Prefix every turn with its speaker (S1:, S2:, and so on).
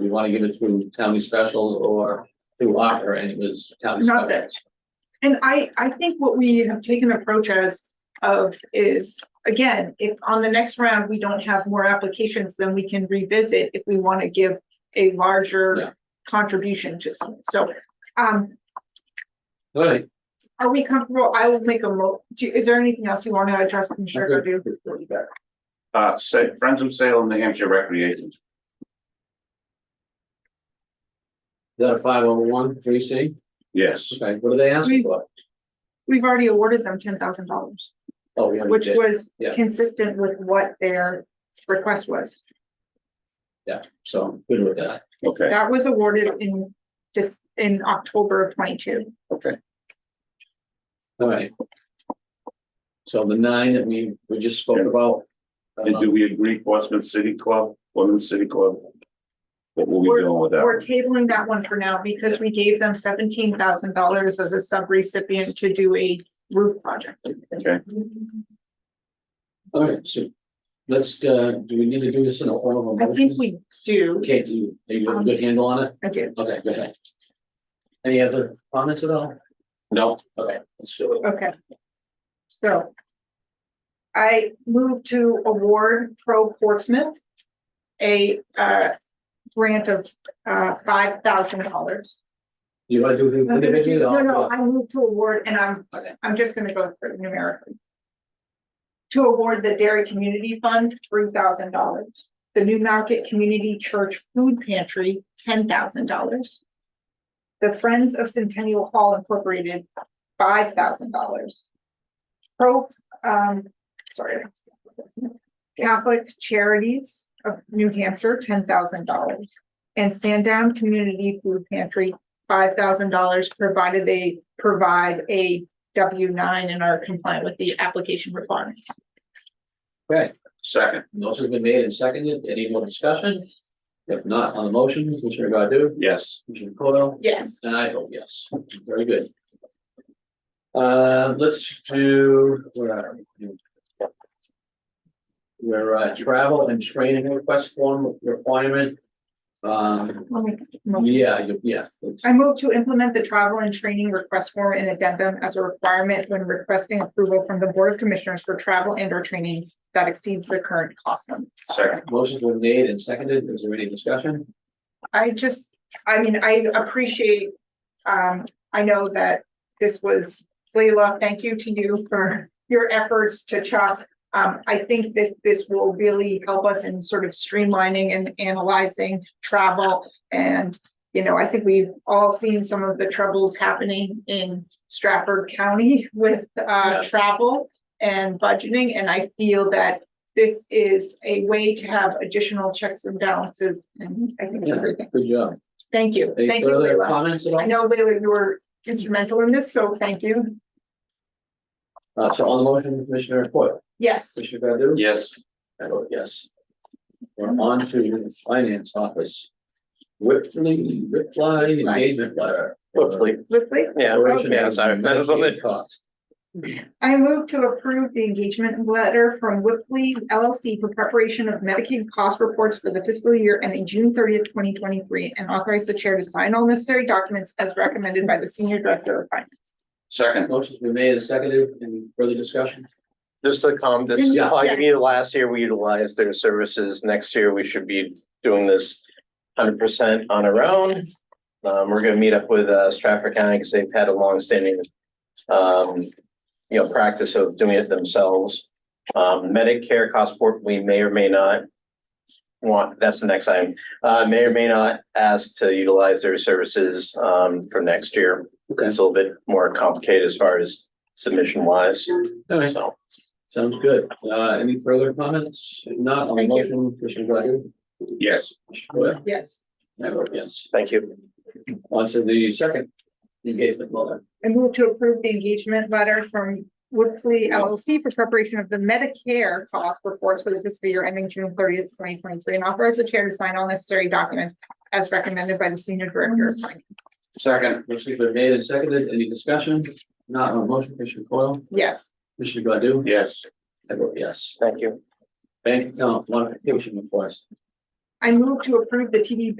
S1: we wanna give it through county specials or through Ocker, and it was county
S2: Not that-
S1: specials.
S2: And I, I think what we have taken approach as of is, again, if on the next round, we don't have more applications, then we can revisit if we want to give a
S1: Yeah.
S2: larger contribution to something. So, um,
S1: Alright,
S2: are we comfortable? I will make a mo, do- is there anything else you want to address, Commissioner
S1: I'm
S2: Godu?
S3: Uh, Sa- Friends of Salem, New Hampshire Recreation.
S1: is that a five oh one, three C?
S3: Yes,
S1: Okay, what are they asking for?
S2: We've already awarded them ten thousand dollars,
S1: Oh, we already
S2: which
S1: did,
S2: was
S1: Yeah.
S2: consistent with what their request was.
S1: yeah, so I'm good with that.
S3: okay,
S2: That was awarded in just in October of twenty-two.
S3: okay.
S1: Alright. So the nine that we, we just spoke about.
S3: And do
S1: uh,
S3: we agree Portsmouth City Club, Women's City Club? What were
S2: We're-
S3: we doing with that?
S2: We're
S3: one?
S2: tabling that one for now because we gave them seventeen thousand dollars as a subrecipient to do a roof project.
S3: Okay,
S1: Alright, so let's, uh, do we need to do this in a form of a
S2: I
S1: motion?
S2: think we do,
S1: Okay, do you, do you have a good handle on it?
S2: I do,
S1: Okay, go ahead. Any other comments at all? No. Okay, let's do it.
S2: okay. So. I move to award Pro Portsmouth a uh grant of uh five thousand dollars.
S1: You wanna do the
S2: Uh, No,
S1: individual? or-
S2: no, I move to award and I'm
S1: Okay,
S2: I'm just gonna go through numerically. To award the Dairy Community Fund, three thousand dollars. The New Market Community Church Food Pantry, ten thousand dollars. The Friends of Centennial Hall Incorporated, five thousand dollars. Pro, um, sorry. Catholic Charities of New Hampshire, ten thousand dollars. And Sandown Community Food Pantry, five thousand dollars, provided they provide a W nine and are compliant with the application requirements.
S1: Right,
S3: second,
S1: motion has been made and seconded, any more discussion? If not, on the motion, Commissioner Godu,
S3: yes,
S1: Commissioner Coyle?
S2: Yes.
S1: And I vote yes, very good. Uh, let's do, where are we? We're, uh, travel and training request form requirement. Um,
S2: Let me-
S1: yeah, you- yeah. let's-
S2: I move to implement the travel and training request form and addendum as a requirement when requesting approval from the Board of Commissioners for travel and or training that exceeds the current cost limits.
S3: second,
S1: Motion's been made and seconded, is there any discussion?
S2: I just, I mean, I appreciate, um, I know that this was, Leila, thank you to you for your efforts to Chuck. Um, I think this, this will really help us in sort of streamlining and analyzing travel. And, you know, I think we've all seen some of the troubles happening in Stratford County with,
S1: Yeah.
S2: uh, travel and budgeting. And I feel that this is a way to have additional checks and balances. And I think it's a
S1: Yeah,
S2: good thing.
S1: good job.
S2: Thank you,
S1: Any
S2: thank you,
S1: further
S2: Leila.
S1: comments at
S2: I
S1: all?
S2: know, Leila, you were instrumental in this, so thank you.
S1: Uh, so on the motion, Commissioner Foil,
S2: Yes,
S1: Commissioner Godu?
S3: yes,
S1: I vote yes. We're on to the finance office. Whitley, Whitly engagement letter.
S4: Hopefully,
S2: Whitley,
S4: yeah,
S1: Operation
S4: yeah, sorry, that is only,
S1: Medicaid costs.
S2: I move to approve the engagement letter from Whitley LLC for preparation of Medicaid cost reports for the fiscal year ending June thirtieth, twenty twenty-three, and authorize the chair to sign all necessary documents as recommended by the senior director of finance.
S3: second,
S1: Motion's been made and seconded. Any further discussion?
S4: just to calm, this is
S1: Yeah.
S4: like me, last year we utilized their services, next year we should be doing this hundred percent on our own. Um, we're gonna meet up with uh, Stratford County, because they've had a longstanding, um, you know, practice of doing it themselves. Um, Medicare cost support, we may or may not want, that's the next item, uh, may or may not ask to utilize their services, um, for next year.
S1: Okay,
S4: It's a little bit more complicated as far as submission wise,
S1: all right,
S4: so.
S1: sounds good. Uh, any further comments? If Not on the
S2: Thank you.
S1: motion, Commissioner Godu?
S3: yes,
S1: Commissioner Foil?
S2: Yes.
S1: I vote yes.
S4: Thank you.
S1: On to the second engagement letter.
S2: I move to approve the engagement letter from Whitley LLC for preparation of the Medicare cost reports for the fiscal year ending June thirtieth, twenty twenty-three, and authorize the chair to sign all necessary documents as recommended by the senior director of finance.
S3: second,
S1: Motion's been made and seconded. Any discussion? Not on the motion, Commissioner Coyle?
S2: Yes,
S1: Commissioner Godu?
S3: yes,
S1: I vote yes.
S4: Thank you.
S1: Bank account modification request.
S2: I move to approve the TD